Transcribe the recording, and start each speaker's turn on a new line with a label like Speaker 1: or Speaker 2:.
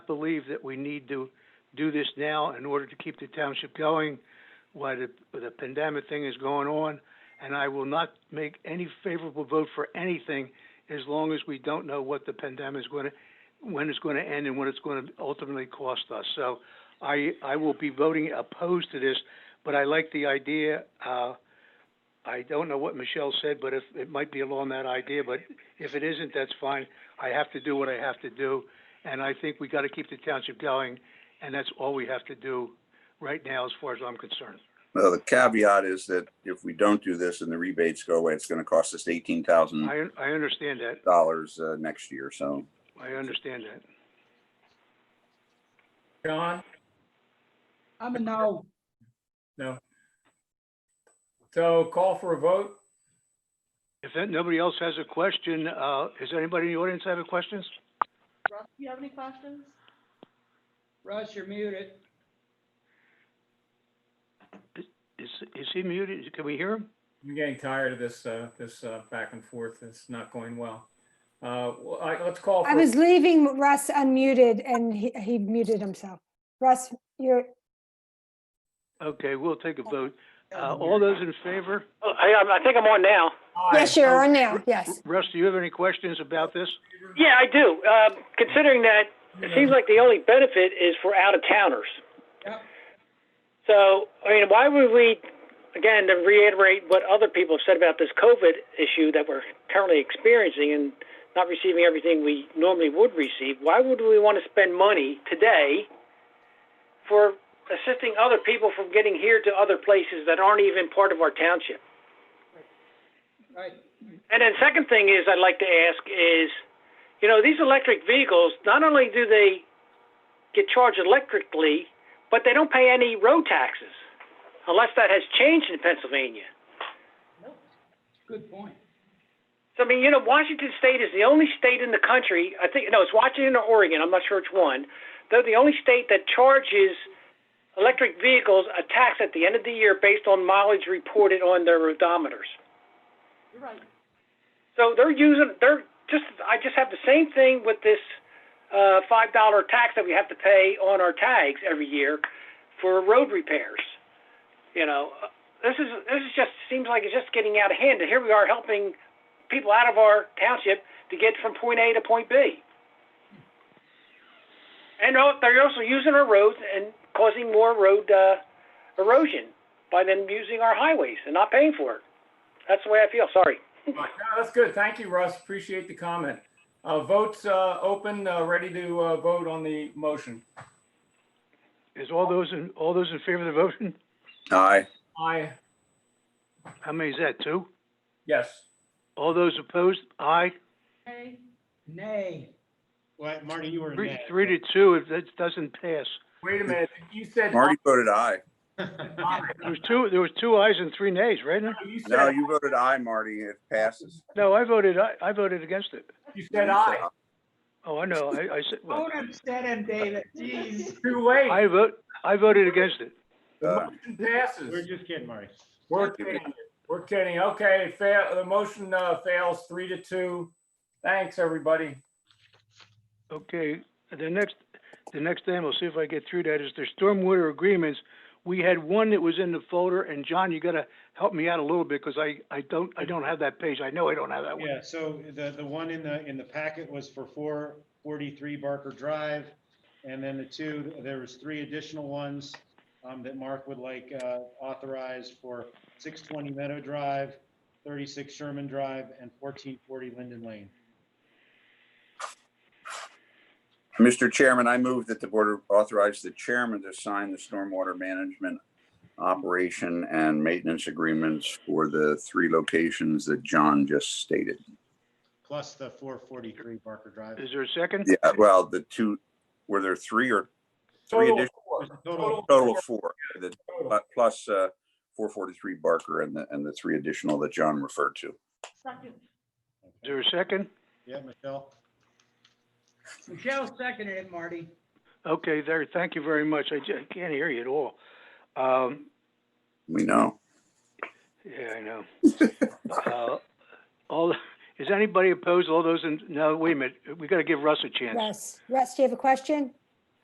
Speaker 1: believe that we need to do this now in order to keep the township going while the, the pandemic thing is going on. And I will not make any favorable vote for anything as long as we don't know what the pandemic is going to, when it's going to end and what it's going to ultimately cost us. So I, I will be voting opposed to this, but I like the idea. Uh, I don't know what Michelle said, but if, it might be along that idea, but if it isn't, that's fine. I have to do what I have to do, and I think we gotta keep the township going, and that's all we have to do right now, as far as I'm concerned.
Speaker 2: Well, the caveat is that if we don't do this and the rebates go away, it's gonna cost us eighteen thousand
Speaker 1: I, I understand that,
Speaker 2: dollars uh, next year, so.
Speaker 1: I understand that.
Speaker 3: John?
Speaker 4: I'm a no.
Speaker 3: No. So call for a vote?
Speaker 1: If that- nobody else has a question, uh, is there anybody in the audience have a questions?
Speaker 5: Russ, do you have any questions?
Speaker 4: Russ, you're muted.
Speaker 1: Is, is he muted? Can we hear him?
Speaker 3: I'm getting tired of this, uh, this, uh, back and forth. It's not going well. Uh, well, all right, let's call.
Speaker 6: I
Speaker 3: for-
Speaker 6: was leaving Russ unmuted and he, he muted himself. Russ, you're,
Speaker 1: Okay, we'll take a vote. Uh, all those in favor?
Speaker 7: Oh, Hey, I'm- I think I'm on now.
Speaker 3: Aye.
Speaker 6: yes, you're on now, yes.
Speaker 1: Russ, do you have any questions about this?
Speaker 7: Yeah, I do. Um, Considering that, it seems like the only benefit is for out-of-towners.
Speaker 4: Yep.
Speaker 7: So, I mean, why would we, again, to reiterate what other people have said about this COVID issue that we're currently experiencing and not receiving everything we normally would receive, why would we want to spend money today for assisting other people from getting here to other places that aren't even part of our township?
Speaker 4: Right.
Speaker 7: And then second thing is I'd like to ask is, you know, these electric vehicles, not only do they get charged electrically, but they don't pay any road taxes unless that has changed in Pennsylvania.
Speaker 4: Good point.
Speaker 7: So I mean, you know, Washington State is the only state in the country. I think no, it's Washington or Oregon. I'm not sure which one. They're the only state that charges electric vehicles a tax at the end of the year based on mileage reported on their odometers.
Speaker 5: You're right.
Speaker 7: So they're using they're just I just have the same thing with this uh five dollar tax that we have to pay on our tags every year for road repairs. You know, uh, this is this is just seems like it's just getting out of hand and here we are helping people out of our township to get from point A to point B. And al- they're also using our roads and causing more road uh, erosion by them using our highways and not paying for it. That's the way I feel. Sorry.
Speaker 3: No, That's good. Thank you, Russ. Appreciate the comment. Uh, votes, uh, open, uh, ready to, uh, vote on the motion.
Speaker 1: Is all those in, all those in favor of the motion?
Speaker 2: Aye,
Speaker 3: Aye,
Speaker 1: How many is that, two?
Speaker 3: yes.
Speaker 1: All those opposed, aye.
Speaker 5: Okay,
Speaker 4: Nay.
Speaker 8: Well, Marty, you were
Speaker 1: Three,
Speaker 8: in
Speaker 1: three to two, if that doesn't pass.
Speaker 3: Wait a minute. You said.
Speaker 2: Marty voted aye.
Speaker 3: aye.
Speaker 1: There was two, there was two ayes and three nays, right?
Speaker 3: You
Speaker 2: No,
Speaker 3: said,
Speaker 2: you voted aye, Marty, it passes.
Speaker 1: No, I voted, I, I voted against it.
Speaker 3: you said aye.
Speaker 1: Oh, I know, I, I said,
Speaker 8: Oh,
Speaker 1: well,
Speaker 4: Don't upset him, David. Jeez.
Speaker 3: Too late.
Speaker 1: I vote, I voted against it.
Speaker 2: Uh,
Speaker 3: Motion
Speaker 8: We're
Speaker 3: Passes.
Speaker 8: just kidding, Marty.
Speaker 3: We're kidding. We're kidding. Okay, fail, the motion, uh, fails three to two. Thanks, everybody.
Speaker 1: Okay, the next, the next thing, we'll see if I get through that, is the stormwater agreements. We had one that was in the folder, and John, you gotta help me out a little bit, because I, I don't, I don't have that page. I know I don't have that one.
Speaker 8: Yeah, so the, the one in the, in the packet was for four forty-three Barker Drive. And then the two, there was three additional ones, um, that Mark would like, uh, authorized for six twenty Meadow Drive, thirty-six Sherman Drive, and fourteen forty Linden Lane.
Speaker 2: Mr. Chairman, I move that the board authorize the chairman to sign the stormwater management operation and maintenance agreements for the three locations that John just stated.
Speaker 8: Plus the four forty-three Barker Drive.
Speaker 1: Is there a second?
Speaker 2: Yeah, well, the two, were there three or three
Speaker 3: Total
Speaker 2: additional,
Speaker 3: four.
Speaker 8: Total,
Speaker 2: total of four, the,
Speaker 3: Total.
Speaker 2: plus, uh, four forty-three Barker and the, and the three additional that John referred to.
Speaker 5: second.
Speaker 1: Is there a second?
Speaker 8: yeah, Michelle?
Speaker 4: Michelle seconded it, Marty.
Speaker 1: Okay, there, thank you very much. I ju- I can't hear you at all. Um,
Speaker 2: We know.
Speaker 1: yeah, I know. Uh, All, is anybody opposed? All those in, no, wait a minute, we gotta give Russ a chance.
Speaker 6: Russ, Russ, do you have a question?